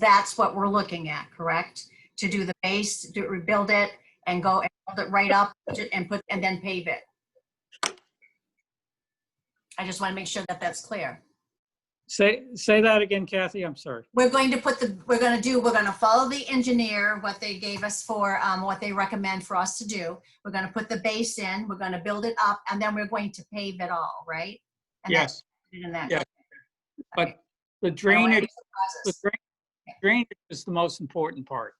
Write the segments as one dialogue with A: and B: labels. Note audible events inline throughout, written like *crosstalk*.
A: that's what we're looking at, correct? To do the base, to rebuild it and go and build it right up to- and put, and then pave it. I just want to make sure that that's clear.
B: Say, say that again, Kathy, I'm sorry.
A: We're going to put the, we're going to do, we're going to follow the engineer, what they gave us for, um, what they recommend for us to do. We're going to put the base in, we're going to build it up, and then we're going to pave it all, right? And that's
B: Yes,
A: it in that.
B: yes.
A: Okay.
B: but the
A: I don't wanna
B: drainage,
A: lose the
B: the
A: process.
B: drain- drainage is the most important part.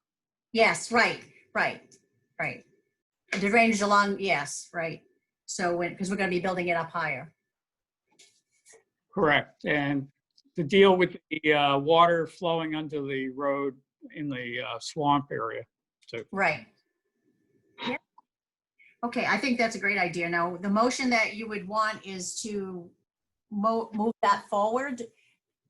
A: Yes, right, right, right. The drainage along, yes, right. So when, because we're going to be building it up higher.
B: Correct. And to deal with the uh, water flowing under the road in the uh, swamp area.
A: Right. Yeah. Okay, I think that's a great idea. Now, the motion that you would want is to mo- move that forward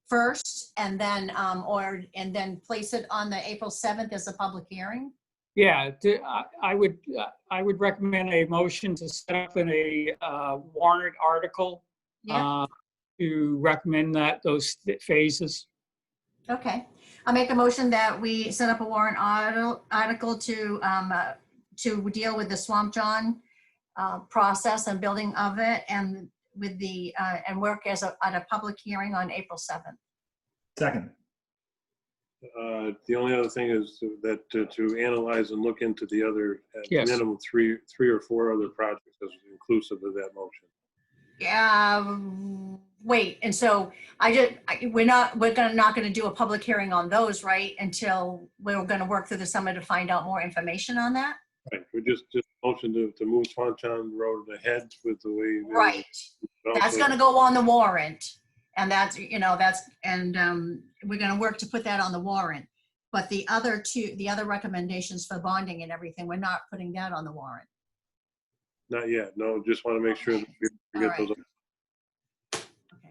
A: first and then, um, or, and then place it on the April 7th as a public hearing?
B: Yeah, to- I- I would, I would recommend a motion to set up in a uh, warrant article
A: Yeah,
B: uh, to recommend that, those phases.
A: okay. I'll make a motion that we set up a warrant arti- article to, um, uh, to deal with the Swamp John uh, process and building of it and with the, uh, and work as a, at a public hearing on April 7th.
C: Second,
D: Uh, The only other thing is that uh, to analyze and look into the other, at
B: Yes.
D: minimum, three, three or four other projects as inclusive of that motion.
A: Um, wait, and so I just, I- we're not, we're gonna, not gonna do a public hearing on those, right? Until we're gonna work through the summer to find out more information on that?
D: Right, we just, just motion to, to move Swanton Road ahead with the way. that-
A: Right, that's gonna go on the warrant. And that's, you know, that's, and, um, we're gonna work to put that on the warrant. But the other two, the other recommendations for bonding and everything, we're not putting that on the warrant.
D: Not yet, no, just want to make sure that we- we get
A: All
D: those.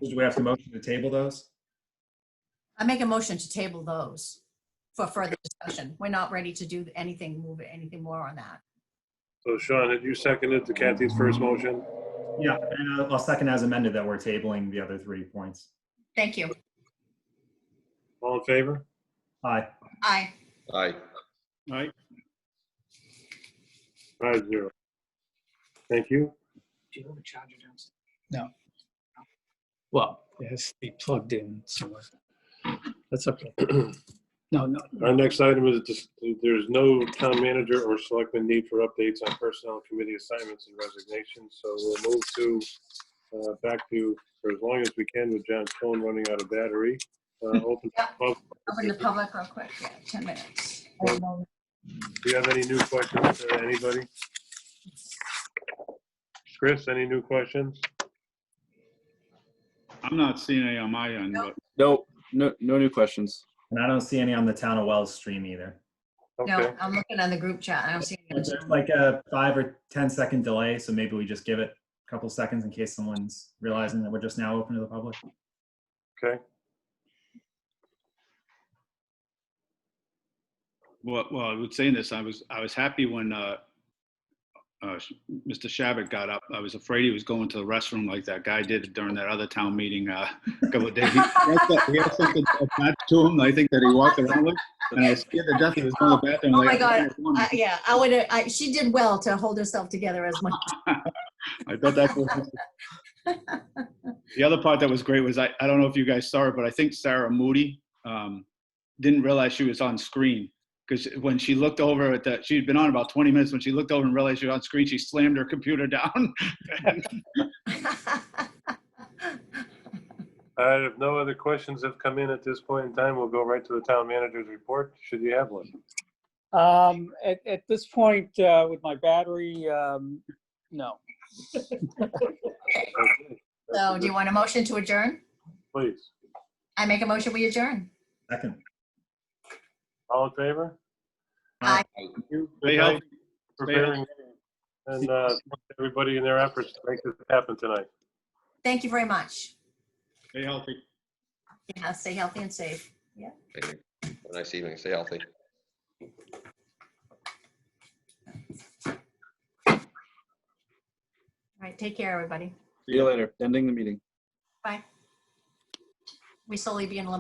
C: do we have to motion to table those?
A: I make a motion to table those for further discussion. We're not ready to do anything, move anything more on that.
D: So Sean, had you seconded to Kathy's first motion?
C: Yeah, and I'll- I'll second as amended that we're tabling the other three points.
A: Thank you.
D: All in favor?
C: Aye.
A: Aye.
E: Aye.
D: Aye. Five zero. Thank you.
F: Do you have a charger downstairs?
B: Well, it has to be plugged in somewhere. That's okay. No, no,
D: Our next item is, dis- there's no town manager or selectman need for updates on personnel committee assignments and resignations, so we'll move to, uh, back to, for as long as we can with John's phone running out of battery. Uh, Open,
A: Yeah.
D: pub-
A: Open the public real quick, yeah, 10 minutes.
D: do you have any new questions, uh, anybody? Chris, any new questions?
G: I'm not seeing any on my end, but
E: No, no, no new questions.
C: And I don't see any on the Town of Wells stream either.
D: Okay,
A: No, I'm looking on the group chat, I don't see any.
C: There's like a five or ten second delay, so maybe we just give it a couple seconds in case someone's realizing that we're just now open to the public.
D: okay.
G: well, well, I was saying this, I was, I was happy when, uh, uh, Sh- Mr. Shabbat got up. I was afraid he was going to the restroom like that guy did during that other town meeting, uh, a couple of days. He had some- he had something attached to him, I think that he walked around with, and I was scared to death he was going to the bathroom.
A: Oh,
G: like,
A: my God.
G: "I don't want
A: Uh,
G: to."
A: Yeah, I would, I, she did well to hold herself together as much.
G: I thought that was. The other part that was great was, I, I don't know if you guys saw it, but I think Sarah Moody, um, didn't realize she was on screen. Because when she looked over at the, she'd been on about 20 minutes, when she looked over and realized she was on screen, she slammed her computer down. *laughs*
A: *laughs*
D: Uh, if no other questions have come in at this point in time, we'll go right to the town manager's report, should you have one?
B: Um, at, at this point, uh, with my battery, um, no.
D: Okay.
A: So do you want a motion to adjourn?
D: Please,
A: I make a motion, we adjourn.
C: Second.
D: all in favor?
A: Aye.
D: Thank you.
G: Stay
D: Good night.
G: healthy.
D: preparing and uh, everybody in their efforts to make this happen tonight.
A: Thank you very much.
G: Stay healthy.
A: Yeah, stay healthy and safe.
E: Have a Nice evening. Stay healthy.
A: All right, take care, everybody.
E: See you later. Ending the meeting.
A: We slowly be in.